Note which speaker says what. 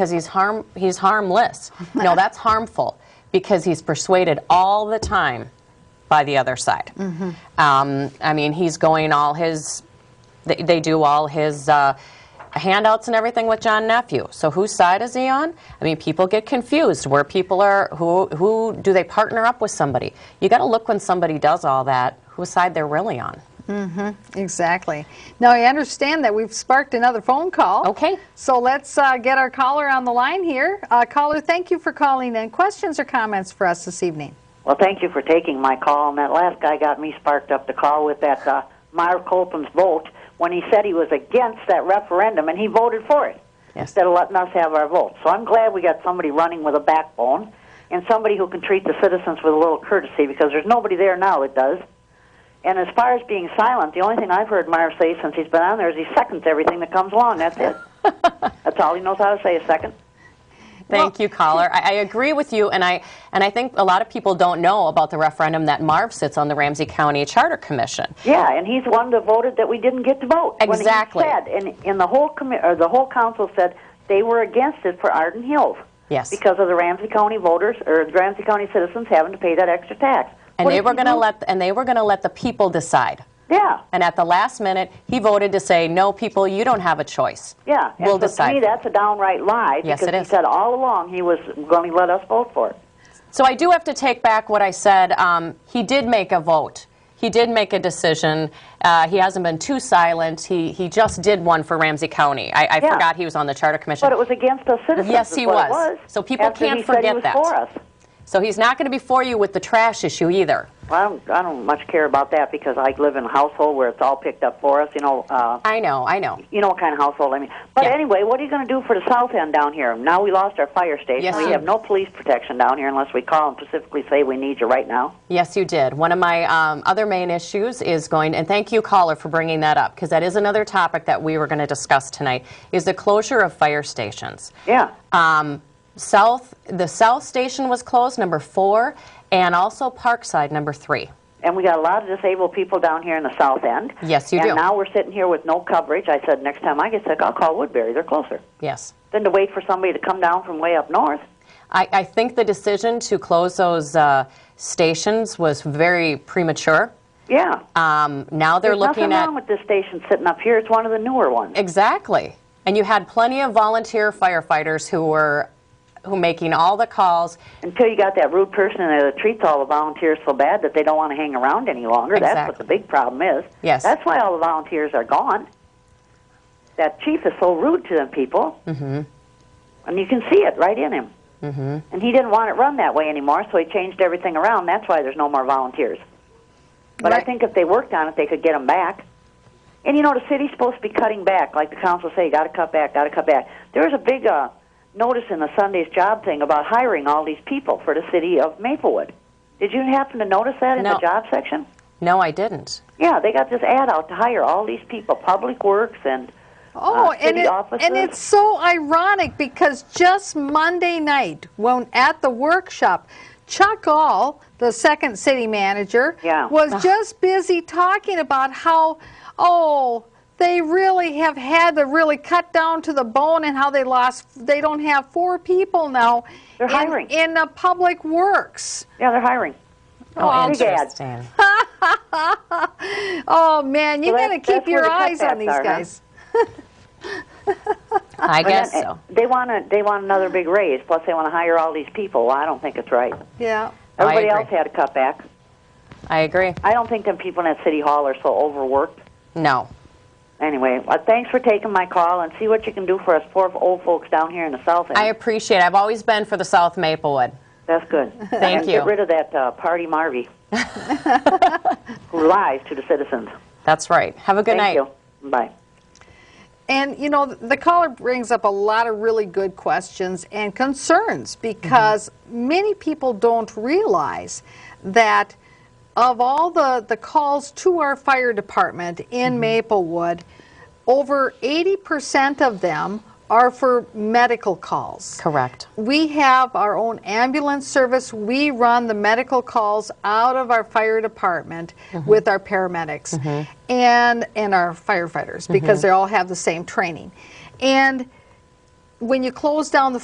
Speaker 1: because he's harm he's harmless. No, that's harmful because he's persuaded all the time by the other side. Um, I mean, he's going all his they, they do all his uh, handouts and everything with John Nephew. So whose side is he on? I mean, people get confused where people are. Who who do they partner up with somebody? You got to look when somebody does all that, whose side they're really on.
Speaker 2: Exactly. Now, I understand that we've sparked another phone call.
Speaker 1: Okay.
Speaker 2: So let's uh, get our caller on the line here. Uh, caller, thank you for calling in. Questions or comments for us this evening?
Speaker 3: Well, thank you for taking my call. And that last guy got me sparked up to call with that uh, Meyer Colton's vote when he said he was against that referendum and he voted for it
Speaker 1: Yes.
Speaker 3: instead of letting us have our vote. So I'm glad we got somebody running with a backbone and somebody who can treat the citizens with a little courtesy because there's nobody there now that does. And as far as being silent, the only thing I've heard Meyer say since he's been on there is he seconds everything that comes along. That's it. That's all he knows how to say is second.
Speaker 1: Thank you, caller. I, I agree with you, and I and I think a lot of people don't know about the referendum that Marv sits on the Ramsey County Charter Commission.
Speaker 3: Yeah, and he's one that voted that we didn't get to vote. When he
Speaker 1: Exactly.
Speaker 3: said, and, and the whole commi- or the whole council said they were against it for Arden Hills.
Speaker 1: Yes.
Speaker 3: Because of the Ramsey County voters or the Ramsey County citizens having to pay that extra tax.
Speaker 1: And
Speaker 3: What
Speaker 1: they
Speaker 3: did
Speaker 1: were
Speaker 3: he
Speaker 1: going to
Speaker 3: do?
Speaker 1: let and they were going to let the people decide.
Speaker 3: Yeah.
Speaker 1: And at the last minute, he voted to say, "No, people, you don't have a choice.
Speaker 3: Yeah.
Speaker 1: we'll
Speaker 3: and so
Speaker 1: decide."
Speaker 3: To me, that's a downright lie.
Speaker 1: Yes,
Speaker 3: because
Speaker 1: it
Speaker 3: he
Speaker 1: is.
Speaker 3: said all along he was going to let us vote for it.
Speaker 1: So I do have to take back what I said. Um, he did make a vote. He did make a decision. Uh, he hasn't been too silent. He he just did one for Ramsey County. I, I
Speaker 3: Yeah.
Speaker 1: forgot he was on the Charter Commission.
Speaker 3: But it was against us citizens.
Speaker 1: Yes,
Speaker 3: is
Speaker 1: he
Speaker 3: what it
Speaker 1: was. So people
Speaker 3: after
Speaker 1: can't
Speaker 3: he said
Speaker 1: forget
Speaker 3: he was
Speaker 1: that.
Speaker 3: For us.
Speaker 1: so he's not going to be for you with the trash issue either.
Speaker 3: Well, I don't, I don't much care about that because I live in a household where it's all picked up for us. You know, uh,
Speaker 1: I know. I know.
Speaker 3: you know what kind of household I mean. But
Speaker 1: Yeah.
Speaker 3: anyway, what are you going to do for the south end down here? Now we lost our fire station.
Speaker 1: Yes,
Speaker 3: we
Speaker 1: you-
Speaker 3: have no police protection down here unless we call and specifically say we need you right now.
Speaker 1: Yes, you did. One of my um, other main issues is going, and thank you, caller, for bringing that up, because that is another topic that we were going to discuss tonight, is the closure of fire stations.
Speaker 3: Yeah.
Speaker 1: Um, South, the South Station was closed, number four, and also Parkside, number three.
Speaker 3: And we got a lot of disabled people down here in the south end.
Speaker 1: Yes, you
Speaker 3: and
Speaker 1: do.
Speaker 3: now we're sitting here with no coverage. I said next time I get sick, I'll call Woodbury. They're closer.
Speaker 1: Yes.
Speaker 3: Than to wait for somebody to come down from way up north.
Speaker 1: I, I think the decision to close those uh, stations was very premature.
Speaker 3: Yeah.
Speaker 1: Um, now they're
Speaker 3: There's
Speaker 1: looking
Speaker 3: nothing
Speaker 1: at.
Speaker 3: wrong with this station sitting up here. It's one of the newer ones.
Speaker 1: Exactly. And you had plenty of volunteer firefighters who were who making all the calls.
Speaker 3: Until you got that rude person in there that treats all the volunteers so bad that they don't want to hang around any longer. That's what
Speaker 1: Exactly.
Speaker 3: the big problem is.
Speaker 1: Yes.
Speaker 3: That's why all the volunteers are gone. That chief is so rude to them people. Mm-hmm. And you can see it right in him. Mm-hmm. And he didn't want it run that way anymore, so he changed everything around. That's why there's no more volunteers. But I
Speaker 2: Right.
Speaker 3: think if they worked on it, they could get them back. And you know, the city's supposed to be cutting back, like the council say, got to cut back, got to cut back. There was a big uh, notice in the Sunday's job thing about hiring all these people for the city of Maplewood. Did you happen to notice that in
Speaker 1: No.
Speaker 3: the job section?
Speaker 1: No, I didn't.
Speaker 3: Yeah, they got this ad out to hire all these people, public works and
Speaker 2: Oh,
Speaker 3: uh, city
Speaker 2: and, it,
Speaker 3: offices.
Speaker 2: and it's so ironic because just Monday night, when at the workshop, Chuck All, the second city manager,
Speaker 3: Yeah.
Speaker 2: was just busy talking about how, oh, they really have had to really cut down to the bone and how they lost, they don't have four people now
Speaker 3: They're
Speaker 2: in,
Speaker 3: hiring.
Speaker 2: in the public works. Um,
Speaker 3: yeah, they're hiring.
Speaker 1: Oh,
Speaker 3: big ad.
Speaker 1: interesting.
Speaker 2: Oh, man, you
Speaker 3: Well,
Speaker 2: got to
Speaker 3: that's- that's
Speaker 2: keep your
Speaker 3: where the
Speaker 2: eyes on
Speaker 3: cutbacks
Speaker 2: these
Speaker 3: are, huh?
Speaker 2: guys.
Speaker 1: I
Speaker 3: And
Speaker 1: guess
Speaker 3: then, eh,
Speaker 1: so.
Speaker 3: They want to. They want another big raise. Plus, they want to hire all these people. Well, I don't think it's right.
Speaker 2: Yeah.
Speaker 1: I
Speaker 3: Everybody
Speaker 1: agree.
Speaker 3: else had a cutback.
Speaker 1: I agree.
Speaker 3: I don't think them people in that city hall are so overworked.
Speaker 1: No.
Speaker 3: Anyway, well, thanks for taking my call and see what you can do for us poor old folks down here in the south end.
Speaker 1: I appreciate it. I've always been for the South Maplewood.
Speaker 3: That's good.
Speaker 1: Thank
Speaker 3: and
Speaker 1: you.
Speaker 3: Get rid of that uh, party Marvy who lies to the citizens.
Speaker 1: That's right. Have a good
Speaker 3: Thank
Speaker 1: night.
Speaker 3: you. Bye.
Speaker 2: And you know, the caller brings up a lot of really good questions and concerns because many people don't realize that of all the, the calls to our fire department in Maplewood, over 80% of them are for medical calls.
Speaker 1: Correct.
Speaker 2: We have our own ambulance service. We run the medical calls out of our fire department with our paramedics and and our firefighters because they all have the same training. And when you close down the